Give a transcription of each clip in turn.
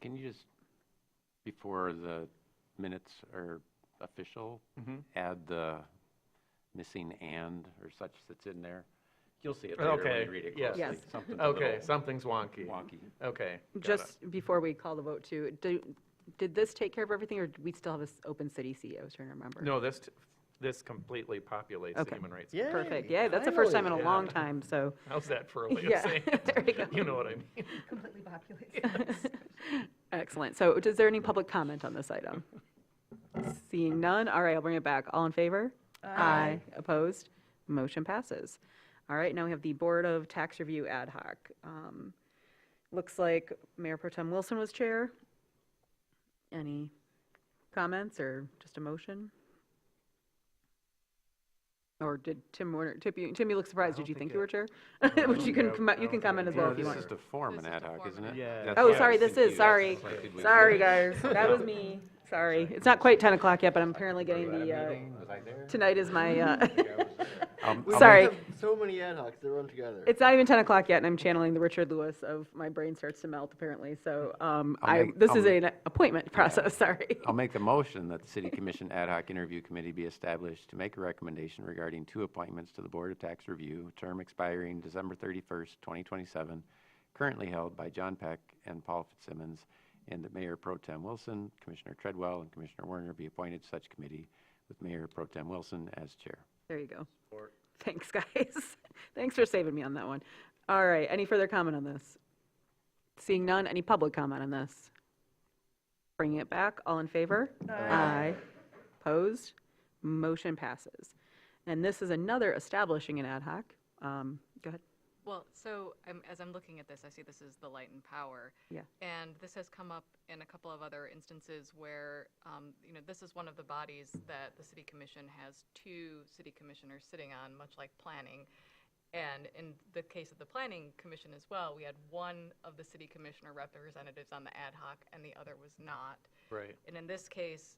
Can you just, before the minutes are official, add the missing and or such that's in there? You'll see it later when Okay, you read it yes. closely. Yes. Something's a Okay, little something's wonky. wonky. Okay. got it. Just before we call the vote too, do, did this take care of everything or do we still have this open city CEO? I was trying to remember? No, this, t- this completely populates the Okay. human rights. Yeah. Perfect. Yeah, that's the first time in a finally. long Yeah. time, so. How's that for a way of Yeah, saying there we it? go. You know what I mean? completely populated. Excellent. So is there any public comment on this item? Seeing none, all right, I'll bring it back. All in favor? Aye. Opposed? Motion passes. All right, now we have the Board of Tax Review Ad Hoc. Um, Looks like Mayor Pro Tem Wilson was chair. Any comments or just a motion? Or did Tim Warner, Tip, you- Tim, you look surprised. Did you think you were chair? Which you can, I- com- I you don't can think comment I as well did. if you this want. is to form an ad hoc, isn't it? Yeah. That's Oh, why I was sorry, this is- confused. sorry. Like, did we- Sorry, guys, that was me. Sorry. It's not quite 10 o'clock yet, but I'm apparently getting the, uh, Was I there? tonight is my, uh, Um, We Sorry. have So many ad hocs that run together. it's not even 10 o'clock yet, and I'm channeling the Richard Lewis of my brain starts to melt, apparently. So um, I'll I, make- this is I'll- an appointment process, sorry. I'll make the motion that the City Commission Ad hoc Interview Committee be established to make a recommendation regarding two appointments to the Board of Tax Review, term expiring December 31st, 2027, currently held by John Peck and Paul Fitzsimmons, and that Mayor Pro Tem Wilson, Commissioner Treadwell, and Commissioner Warner be appointed to such committee with Mayor Pro Tem Wilson as chair. There you go. Thanks, guys. Thanks for saving me on that one. All right, any further comment on this? Seeing none, any public comment on this? Bringing it back, all in favor? Aye. Opposed? Motion passes. And this is another establishing an ad hoc. Um, Go ahead. Well, so I'm, as I'm looking at this, I see this is the light and power. Yeah. And this has come up in a couple of other instances where, um, you know, this is one of the bodies that the city commission has two city commissioners sitting on, much like planning. And in the case of the planning commission as well, we had one of the city commissioner representatives on the ad hoc and the other was not. Right. And in this case,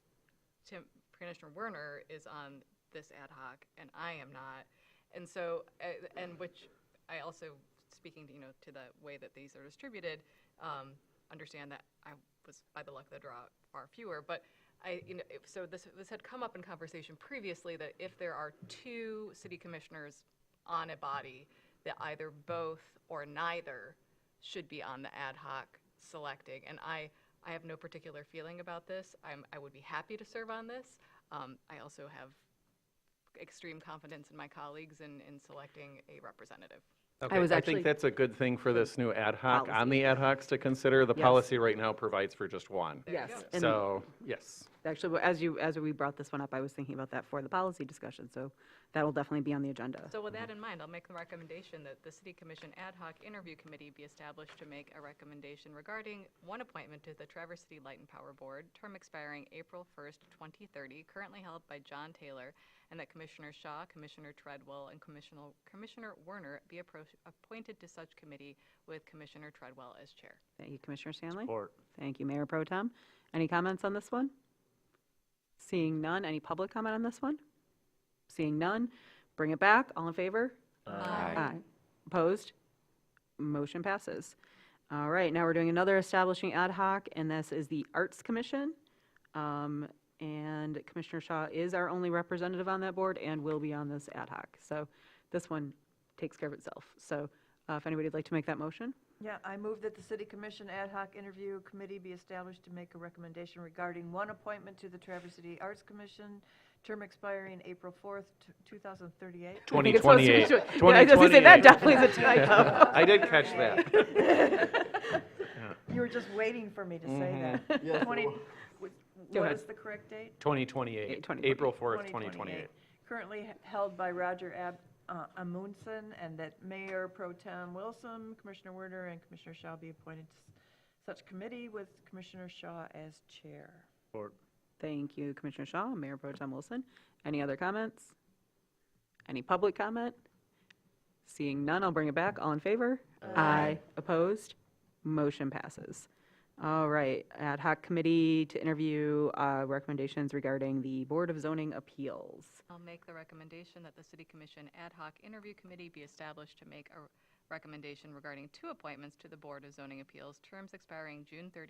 Tim, Commissioner Werner is on this ad hoc, and I am not. And so, a- and which I also, speaking, to, you know, to the way that these are distributed, um, understand that I was, by the luck of the draw, far fewer, but I, you know, if- so this, this had come up in conversation previously, that if there are two city commissioners on a body, that either both or neither should be on the ad hoc selecting. And I, I have no particular feeling about this. I'm, I would be happy to serve on this. Um, I also have extreme confidence in my colleagues in, in selecting a representative. Okay, was I actually- think that's a good thing for this new ad hoc, on Policy. the ad hocs to consider. The Yes. policy right now provides for just one. Yes. go. and- So, yes. Actually, as you, as we brought this one up, I was thinking about that for the policy discussion, so that'll definitely be on the agenda. So with that in mind, I'll make the recommendation that the City Commission Ad hoc Interview Committee be established to make a recommendation regarding one appointment to the Traverse City Light and Power Board, term expiring April 1st, 2030, currently held by John Taylor, and that Commissioner Shaw, Commissioner Treadwell, and Commissioner, Commissioner Werner be appro- appointed to such committee with Commissioner Treadwell as chair. Thank you, Commissioner Stanley. Thank you, Mayor Pro Tem. Any comments on this one? Seeing none, any public comment on this one? Seeing none, bring it back. All in favor? Aye. Opposed? Motion passes. All right, now we're doing another establishing ad hoc, and this is the Arts Commission. Um, And Commissioner Shaw is our only representative on that board and will be on this ad hoc. So this one takes care of itself. So uh, if anybody'd like to make that motion? Yeah, I move that the City Commission Ad hoc Interview Committee be established to make a recommendation regarding one appointment to the Traverse City Arts Commission, term expiring April 4th, t- 2038. I think it's supposed to be 2028. tw- Yeah, I was going to say, 2028. that definitely is a typo. I did catch that. You were just waiting for me to Mm-hmm. say that. Yes, it 20 was. what- Go What ahead. is the correct date? 2028, 2028. April 4th, 2028. Currently h- held by Roger Ab- uh, Amundson, and that Mayor Pro Tem Wilson, Commissioner Werner, and Commissioner Shaw be appointed to s- such committee with Commissioner Shaw as chair. Thank you, Commissioner Shaw, Mayor Pro Tem Wilson. Any other comments? Any public comment? Seeing none, I'll bring it back. All in favor? Aye. Opposed? Motion passes. All right, ad hoc committee to interview uh, recommendations regarding the Board of Zoning Appeals. I'll make the recommendation that the City Commission Ad hoc Interview Committee be established to make a recommendation regarding two appointments to the Board of Zoning Appeals, terms expiring June 30,